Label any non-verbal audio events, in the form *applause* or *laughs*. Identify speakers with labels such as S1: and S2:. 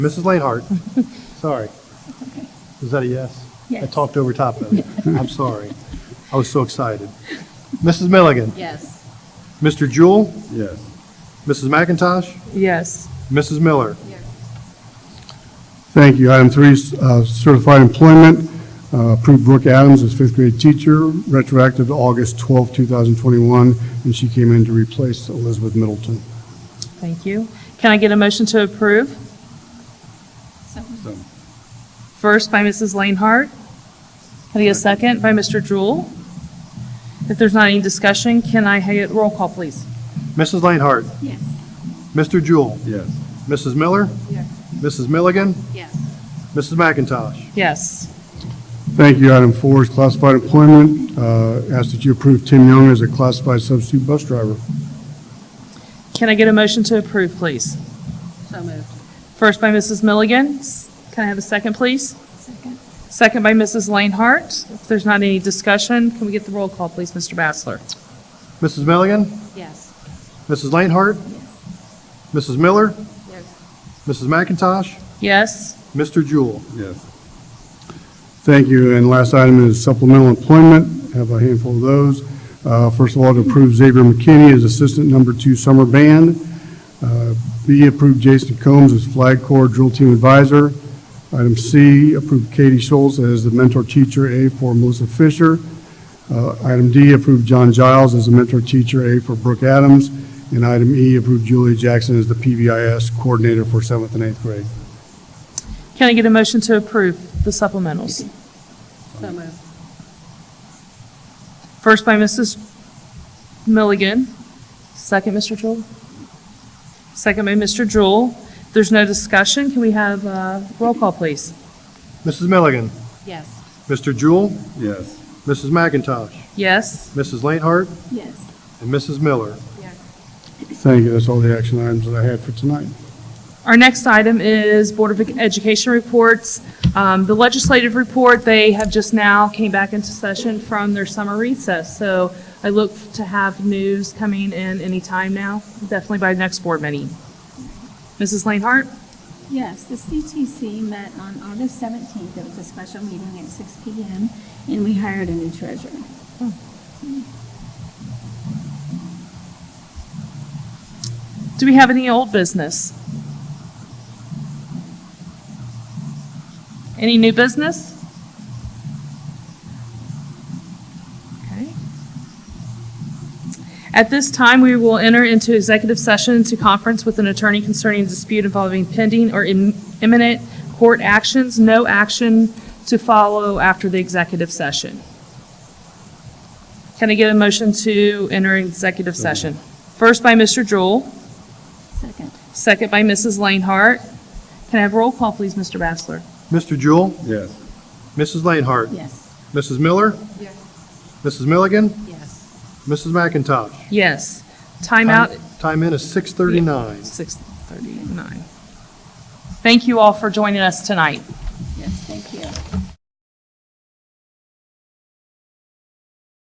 S1: Mrs.
S2: *laughs*
S1: Lainhart, sorry. Was that a yes? I
S2: Yes.
S1: talked over top
S2: *laughs*
S1: of it. I'm sorry. I was so excited. Mrs. Milligan,
S2: Yes.
S1: Mr. Jewell,
S3: Yes.
S1: Mrs. McIntosh,
S2: Yes.
S1: Mrs. Miller.
S3: Thank you. Item three, uh, certified employment. Uh, Approved Brooke Adams as fifth grade teacher, retroactive to August 12, 2021, and she came in to replace Elizabeth Middleton.
S4: Thank you. Can I get a motion to approve?
S3: So-
S4: First by Mrs. Lainhart. Can I get a second by Mr. Jewell? If there's not any discussion, can I get roll call, please?
S1: Mrs. Lainhart,
S2: Yes.
S1: Mr. Jewell,
S3: Yes.
S1: Mrs. Miller,
S2: Yes.
S1: Mrs. Milligan,
S2: Yes.
S1: Mrs. McIntosh.
S4: Yes.
S3: Thank you. Item four is classified employment. Uh, Ask that you approve Tim Young as a classified substitute bus driver.
S4: Can I get a motion to approve, please?
S2: So moved.
S4: First by Mrs. Milligan. S- Can I have a second, please?
S2: Second.
S4: Second by Mrs. Lainhart. If there's not any discussion, can we get the roll call, please, Mr. Bassler?
S1: Mrs. Milligan,
S2: Yes.
S1: Mrs. Lainhart, Mrs. Miller,
S2: Yes.
S1: Mrs. McIntosh,
S4: Yes.
S1: Mr. Jewell.
S3: Yes. Thank you. And last item is supplemental employment. Have a handful of those. Uh, First of all, to approve Xavier McKinney as Assistant Number Two Summer Band. Uh, B, approve Jason Combs as Flag Corps Drill Team Advisor. Item C, approve Katie Schultz as the Mentor Teacher A for Melissa Fisher. Uh, Item D, approve John Giles as the Mentor Teacher A for Brooke Adams. And item E, approve Julia Jackson as the PBIS Coordinator for seventh and eighth grade.
S4: Can I get a motion to approve the supplementals?
S2: So moved.
S4: First by Mrs. Milligan. Second, Mr. Jewell. Second by Mr. Jewell. If There's no discussion. Can we have a roll call, please?
S1: Mrs. Milligan,
S2: Yes.
S1: Mr. Jewell,
S3: Yes.
S1: Mrs. McIntosh,
S4: Yes.
S1: Mrs. Lainhart,
S2: Yes.
S1: and Mrs. Miller.
S2: Yes.
S3: Thank you. That's all the action items that I had for tonight.
S4: Our next item is Board of Education reports. Um, The legislative report, they have just now came back into session from their summer recess. So I look to have news coming in anytime now, definitely by next board meeting. Mrs. Lainhart?
S2: Yes, the CTC met on August 17th. It was a special meeting at 6 PM, and we hired a new treasurer.
S4: Do we have any old business? Any new business? Okay. At this time, we will enter into executive session to conference with an attorney concerning dispute involving pending or im- imminent court actions. No action to follow after the executive session. Can I get a motion to enter executive session? First by Mr. Jewell.
S2: Second.
S4: Second by Mrs. Lainhart. Can I have roll call, please, Mr. Bassler?
S1: Mr. Jewell,
S3: Yes.
S1: Mrs. Lainhart,
S2: Yes.
S1: Mrs. Miller,
S2: Yes.
S1: Mrs. Milligan,
S2: Yes.
S1: Mrs. McIntosh.
S4: Yes.
S1: Um,
S4: Timeout,
S1: Time in is 6:39.
S4: 6:39. Thank you all for joining us tonight.
S2: Yes, thank you.